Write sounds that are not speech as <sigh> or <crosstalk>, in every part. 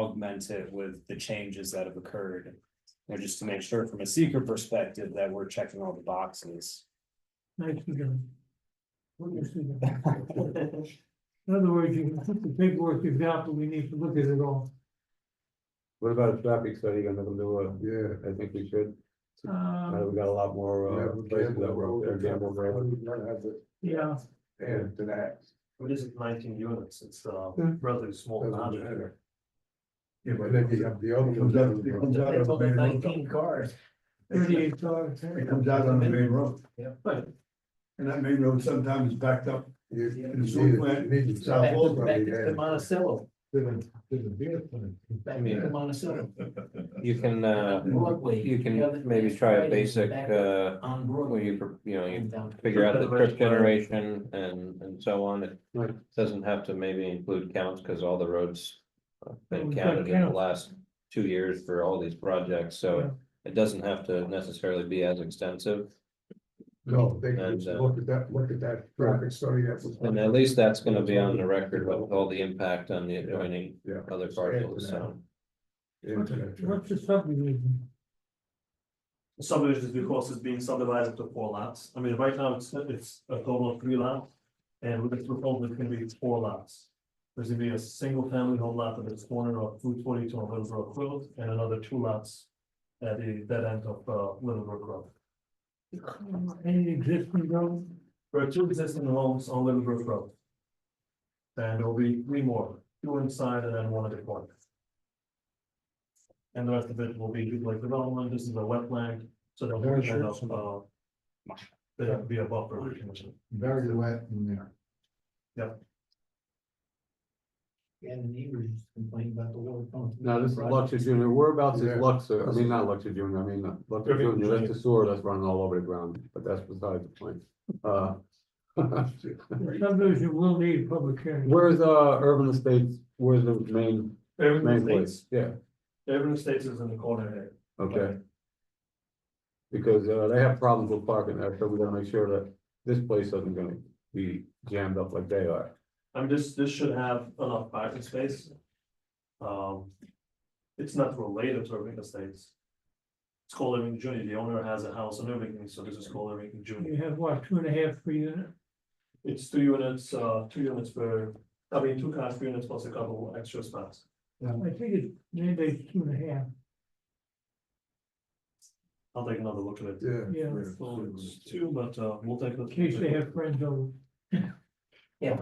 augment it with the changes that have occurred. You know, just to make sure from a seeker perspective that we're checking all the boxes. Nice to go. In other words, you can put the paperwork you've got, but we need to look at it all. What about a traffic study, gonna them do a, Yeah. I think we should, Uh, Um we got a lot more, Yeah, uh, we places gamble that were road, out there, we gamble Gamble Road. road, we gotta have it yeah, added to that. It isn't nineteen units, it's uh Hmm. rather small. Doesn't amount. matter. Yeah, but then you have the other. one. It comes out of Nineteen cars. thirty-eight dollars. It comes out on the main road. Yeah. But, and that main road sometimes is backed up. You- Yeah. you need it- you need it south Back of to- road, back to yeah. Monticello, back Yeah. to Monticello. You can, uh, Broadway, you the other- can maybe try a Fridays basic, back uh, On Broadway. where you, pr- you know, you and down. figure out the trip Reservation. generation and, and so on. It Right. doesn't have to maybe include counts, because all the roads have been We've got counted in the counts. last two years for all these projects, so it doesn't have to necessarily be as extensive. No, they can And, just uh, look at that, look at that traffic study that was. And at least that's gonna be on the record with all the impact on the adjoining Yeah. other parcels, so. Into that traffic. What's the subdivision? The Subdivision is because it's being subdivided into four lots, I mean, right now it's it's a total of three lots. And with this proposal, it's gonna be four lots. There's gonna be a single family home lot that is corner of Route twenty-two on Little Brook Road and another two lots. At the dead end of uh Little Brook Road. Any existing road? There are two existing homes on Little Brook Road. And there'll be three more, two inside and then one at the corner. And the rest of it will be like development, this is a wetland, so there'll be kind of, uh. There'll be a buffer. Very wet in there. And the neighbors complain about the water pump. No, this is Luxor Junior, whereabouts Yeah. is Luxor, I mean, not Luxor Junior, I mean, uh, Luxor Irving Junior, that's Junior. the sewer that's running all over the ground, but that's beside the point. Uh, <laughs> The subdivision will need public hearing. where's, uh, Urban Estates, where's the main, main Everything place, states, yeah, everything states is in the corner there. okay. Because, uh, they have problems with parking there, so we gotta make sure that this place isn't gonna be jammed up like they are. I mean, this, this should have enough parking space. Um, it's not related to Irving Estates. It's called Irving Junior, the owner has a house in Irving, so this is called Irving Junior. You have what, two and a half per unit? It's two units, uh, two units per, I mean, two cars, three units plus a couple extra spots. I think it's, maybe it's two and a half. I'll take another look at it. Yeah. Yeah. So it's two, but, uh, we'll take. a- In case they have friends over. Yeah.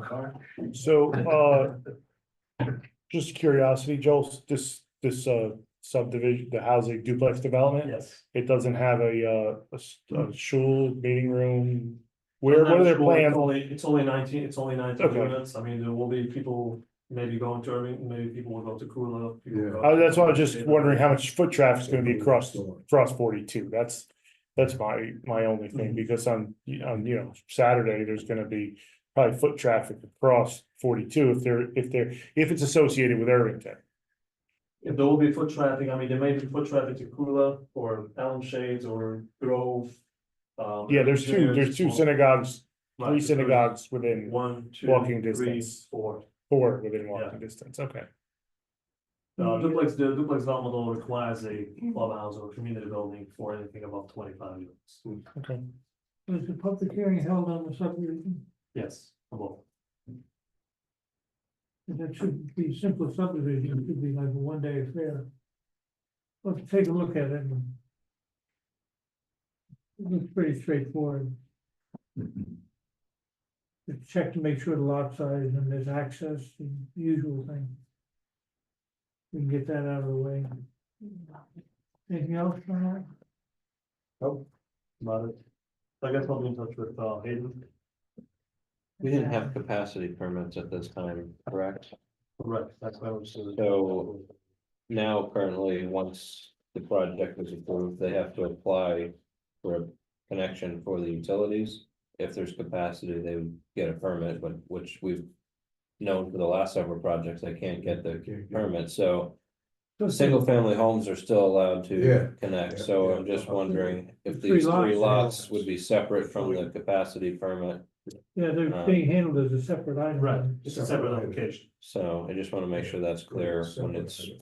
So, uh, just curiosity, Joel, this, this, uh, subdivision, the housing duplex development, Yes. it doesn't have a, uh, a s- a shul, meeting room? Where, what are their It's plans? Only, it's only nineteen, it's only nineteen Okay. units, I mean, there will be people maybe going to Irving, maybe people will go to Kula. people Yeah. go- Uh, that's why I was just wondering how much foot traffic's gonna be across, across forty-two, that's, that's my, my only thing, because on, on, you know, Saturday, there's gonna be probably foot traffic across forty-two if they're, if they're, if it's associated with Irvington. If there will be foot traffic, I mean, there may be foot traffic to Kula or Allen Shades or Grove. um, Yeah, there's two, Virginia, there's two small- synagogues like, Three there's synagogues within One, two, walking three, distance. four. four within walking distance, okay. Uh, Mm-hmm. duplex, the duplex development law requires a clubhouse or community building for anything above twenty-five units. Was the public hearing held on the subdivision? Yes, above. And that should be simple subdivision, it should be like a one-day affair. Let's take a look at it. and- It looks pretty straightforward. Just Check to make sure the lot size and there's access, the usual thing. We can get that out of the way. Anything else on that? About it. I guess I'll be in touch with, uh, Hayden. We didn't have capacity permits at this time, correct? Right, that's why I was. So- now currently, once the project is approved, they have to apply for a connection for the utilities. If there's capacity, they would get a permit, but which we've known for the last several projects, they can't get the permit, so single family homes are still allowed Yeah. to connect, so I'm just wondering if Three these three lots. lots would be separate from the capacity permit. Yeah, they're being handled as a separate item. Right, it's a separate application. So I just want to make sure that's clear when it's